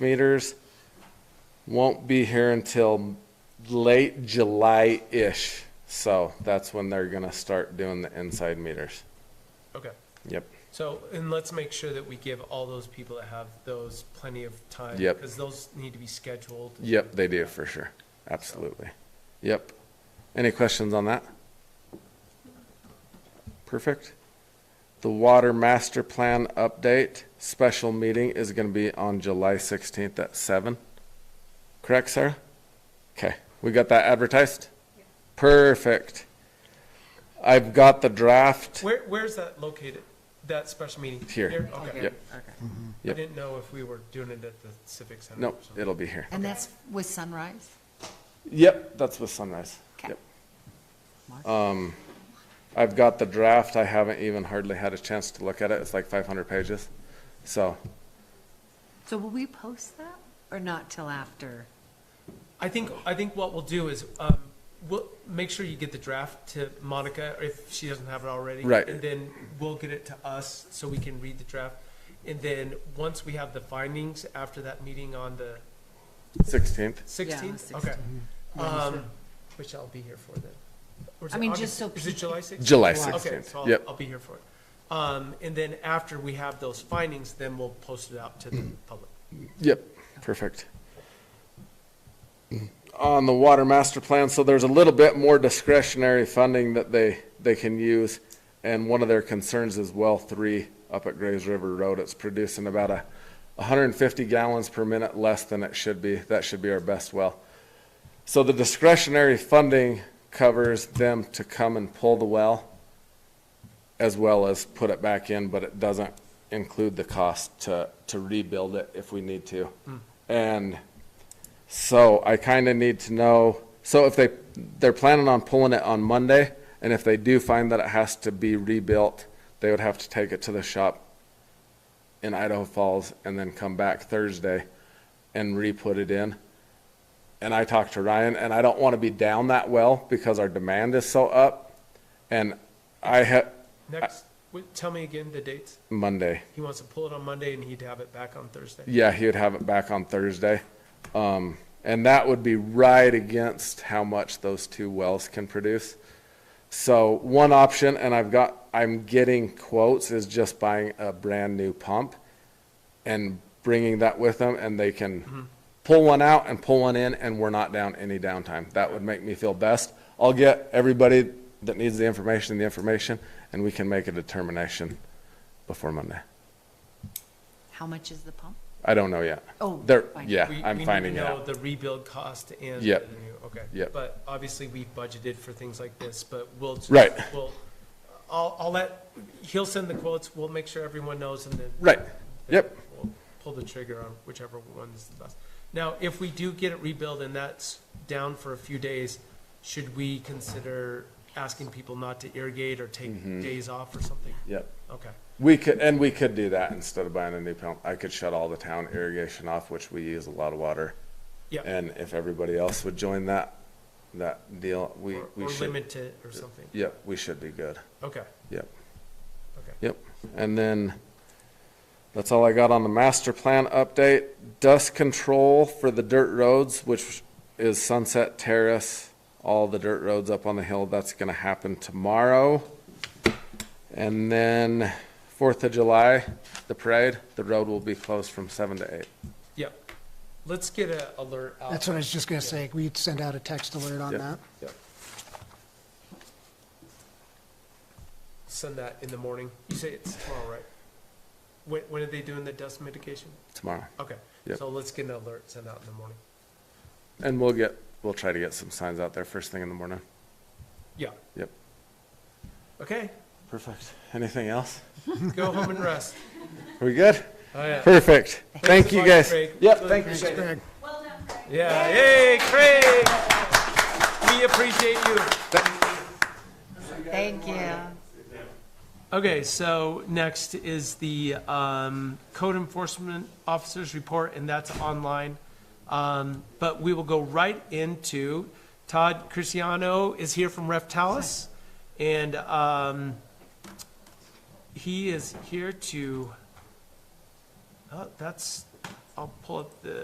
meters won't be here until late July-ish. So that's when they're gonna start doing the inside meters. Okay, Yep. so, and let's make sure that we give all those people that have those plenty of time. Yep. Because those need to be scheduled. Yep, they do for sure. Absolutely. Yep. Any questions on that? Perfect. The water master plan update special meeting is gonna be on July sixteenth at seven. Correct, Sarah? Okay, we got that advertised? Perfect. I've got the draft. Where, where's that located, that special meeting? Here. Okay. Yep. I Yep. didn't know if we were doing it at the Civic Center. Nope, or something. it'll be here. And that's with sunrise? Yep, that's with sunrise. Okay. Yep. Um, Mark? I've got the draft. I haven't even hardly had a chance to look at it. It's like five hundred pages. So So will we post that or not till after? I think, I think what we'll do is, um, we'll, make sure you get the draft to Monica, if she doesn't have it already. Right. And then we'll get it to us, so we can read the draft. And then, once we have the findings after that meeting on the sixteenth. sixteenth, Yeah, okay. 16th. Um, which I'll be here for then. Or is I it mean, August- just so Is it people- July sixteenth? July July. Okay, 16th. so I'll, Yep. I'll be here for it. Um, and then after we have those findings, then we'll post it out to the public. Yep, perfect. On the water master plan, so there's a little bit more discretionary funding that they, they can use. And one of their concerns is well three up at Graves River Road. It's producing about a hundred and fifty gallons per minute less than it should be. That should be our best well. So the discretionary funding covers them to come and pull the well as well as put it back in, but it doesn't include the cost to, to rebuild it if we need to. And so I kind of need to know, so if they, they're planning on pulling it on Monday, and if they do find that it has to be rebuilt, they would have to take it to the shop in Idaho Falls and then come back Thursday and re-put it in. And I talked to Ryan, and I don't want to be down that well because our demand is so up. And I have, Next, wait, tell me again the dates. Monday. He wants to pull it on Monday and he'd have it back on Thursday. Yeah, he would have it back on Thursday. Um, and that would be right against how much those two wells can produce. So one option, and I've got, I'm getting quotes, is just buying a brand new pump and bringing that with them and they can pull one out and pull one in and we're not down any downtime. That would make me feel best. I'll get everybody that needs the information, the information, and we can make a determination before Monday. How much is the pump? I don't know yet. Oh, They're, fine. yeah, We- I'm finding it We need out. to know the rebuild cost and. Yep. the new- Okay. Yep. But obviously, we budgeted for things like this, but we'll. just- Right. We'll, I'll, I'll let, he'll send the quotes, we'll make sure everyone knows and then. Right, yep, we'll pull the trigger on whichever one's the best. Now, if we do get it rebuilt and that's down for a few days, should we consider asking people not to irrigate or take Mm-hmm. days off or something? yep. Okay, We could, and we could do that instead of buying a new pump. I could shut all the town irrigation off, which we use a lot of water. yeah, And if everybody else would join that, that deal, we, or, we or should, limit it or something, yep, we should be good. okay, Yep, okay. yep. And then, that's all I got on the master plan update. Dust control for the dirt roads, which is Sunset Terrace, all the dirt roads up on the hill, that's gonna happen tomorrow. And then Fourth of July, the parade, the road will be closed from seven to eight. Yep, let's get a alert out. That's what I was just gonna say, we send out a text alert on Yep, that. yep. Send that in the morning, you say it's tomorrow, right? When, when are they doing the dust mitigation? Tomorrow. Okay, Yep. so let's get an alert sent out in the morning, And we'll get, we'll try to get some signs out there first thing in the morning. yeah, Yep. okay, Perfect. Anything else? go home and rest. Are we good? Oh, yeah. Perfect. Thank a you, lot, guys. Craig. Yep, Really thank you. appreciate it. Greg? Yeah, yay, Craig! We appreciate you. Thank you. Okay, so next is the um, code enforcement officer's report, and that's online. Um, But we will go right into, Todd Cristiano is here from Reftalis, and um, he is here to, oh, that's I'll pull up the